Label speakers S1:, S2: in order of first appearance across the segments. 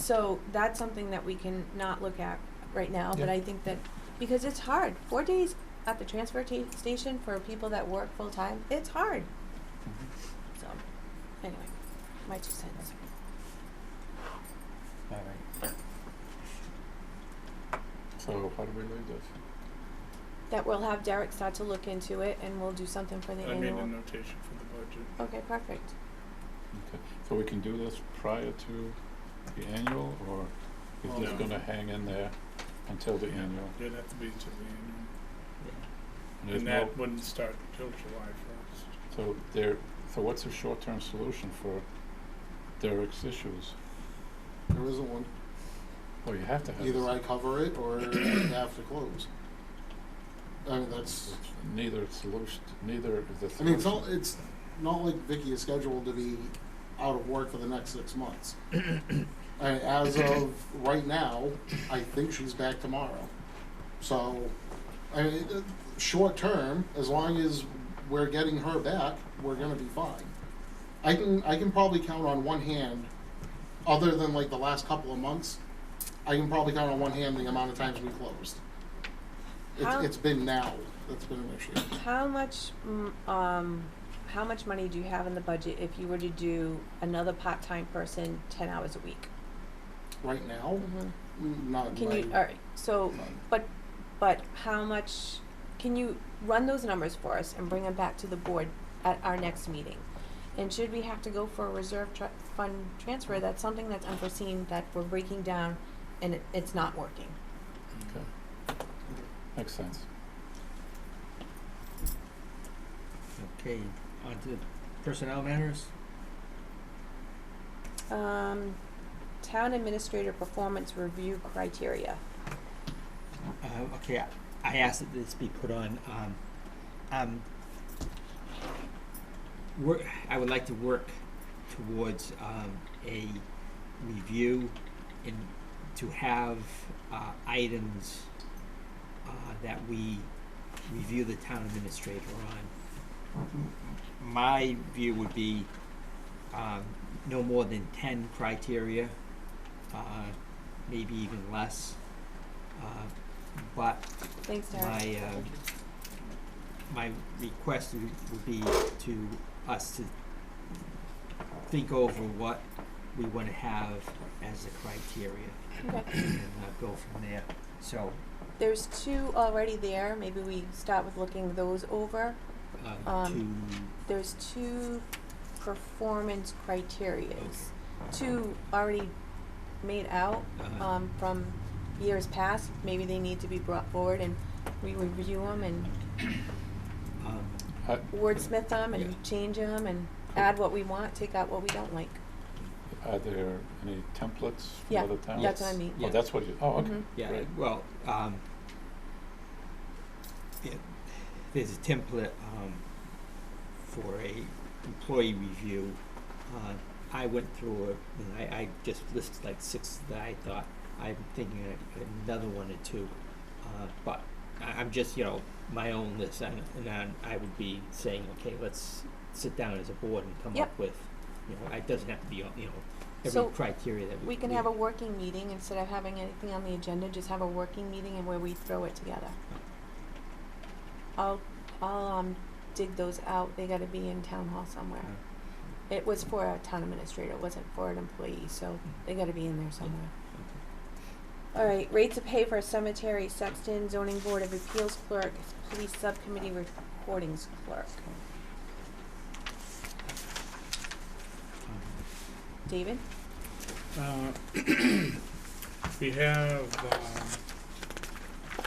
S1: So that's something that we can not look at right now, but
S2: Yeah.
S1: I think that, because it's hard, four days at the transfer ta- station for people that work full-time, it's hard. So, anyway, my two cents.
S2: All right. So how do we leave this?
S1: That we'll have Derek start to look into it and we'll do something for the
S3: I made a
S1: annual.
S3: notation for the budget.
S1: Okay, perfect.
S2: Okay, so we can do this prior to the annual, or is this
S3: No.
S2: gonna hang in there until the annual?
S3: It'd have to be to the
S2: And
S3: annual,
S2: there's
S3: and
S2: no,
S3: that wouldn't start until July first.
S2: so there, so what's the short-term solution for Derek's issues?
S4: There isn't one.
S2: Well, you have to have.
S4: Either
S2: this-
S4: I cover it or I have to close. I mean, that's,
S2: Neither solution, neither is the
S4: I
S2: solution.
S4: mean, it's not, it's not like Vicky is scheduled to be out of work for the next six months. I mean, as of right now, I think she's back tomorrow. So, I mean, it- it- short term, as long as we're getting her back, we're gonna be fine. I can, I can probably count on one hand, other than like the last couple of months, I can probably count on one hand the amount of times we closed.
S1: How-
S4: It's, it's been now that's been an issue.
S1: How much, mm, um, how much money do you have in the budget if you were to do another part-time person ten hours a week?
S4: Right now, Not
S1: Can you, uh,
S4: right.
S1: alright, so,
S4: None.
S1: but, but how much, can you run those numbers for us and bring them back to the board at our next meeting? And should we have to go for a reserve tr- fund transfer, that's something that's unforeseen, that we're breaking down and it, it's not working.
S2: Okay, makes sense.
S5: Okay, on to personnel matters.
S1: Um, town administrator performance review criteria.
S5: Uh, okay, I- I asked that this be put on, um, um, work, I would like to work towards, um, a review and to have, uh, items, uh, that we review the town administrator on. My view would be, um, no more than ten criteria, uh, maybe even less. Uh, but
S1: Thanks, Derek.
S5: my, um, my request would would be to us to think over what we wanna have as the criteria
S1: Okay.
S5: and uh, go from there. So,
S1: There's two already there, maybe we start with looking those over.
S5: uh, to,
S1: Um, There's two performance criterias. two already made out
S5: Uh-huh.
S1: um, from years past. Maybe they need to be brought forward and we review them and uh,
S5: um,
S2: I,
S1: wordsmith them and
S5: Yeah.
S1: change them and
S5: Cool.
S1: add what we want, take out what we don't like.
S2: are there any templates from
S1: Yeah,
S2: other towns?
S1: That's what I mean.
S5: Yeah.
S2: Oh, that's what you, oh, okay.
S1: Mhm.
S5: yeah,
S2: Right.
S5: well, um, yeah, there's a template, um, for a employee review. Uh, I went through it, and I, I just listed like six that I thought, I'm thinking of another one or two. Uh, but I, I'm just, you know, my own list, and, and I, I would be saying, okay, let's sit down as a board and come
S1: Yep.
S5: up with, you know, it doesn't have to be, on you know,
S1: So,
S5: every criteria that we.
S1: We can have a working meeting instead of having anything on the agenda, just have a working meeting and where we throw it together. I'll, I'll um, dig those out. They gotta be in town hall somewhere. It was for a town administrator, it wasn't for an employee, so they gotta be in there somewhere. All right, rates of pay for cemetery, sexton, zoning board of appeals clerk, police subcommittee recordings clerk.
S5: Um,
S1: David?
S3: Uh, We have um,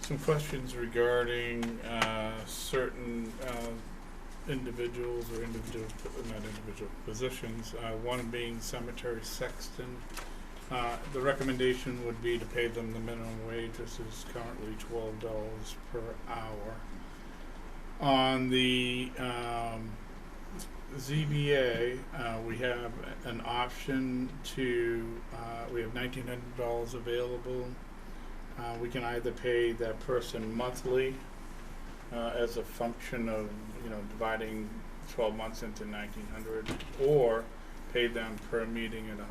S3: some questions regarding uh, certain uh, individuals or individual, not individual positions, uh, one being cemetery sexton. Uh, The recommendation would be to pay them the minimum wage, this is currently twelve dollars per hour. On the um, ZBA, uh, we have an option to, uh, we have nineteen hundred dollars available. Uh, we can either pay that person monthly, uh, as a function of, you know, dividing twelve months into nineteen hundred, or pay them per meeting at a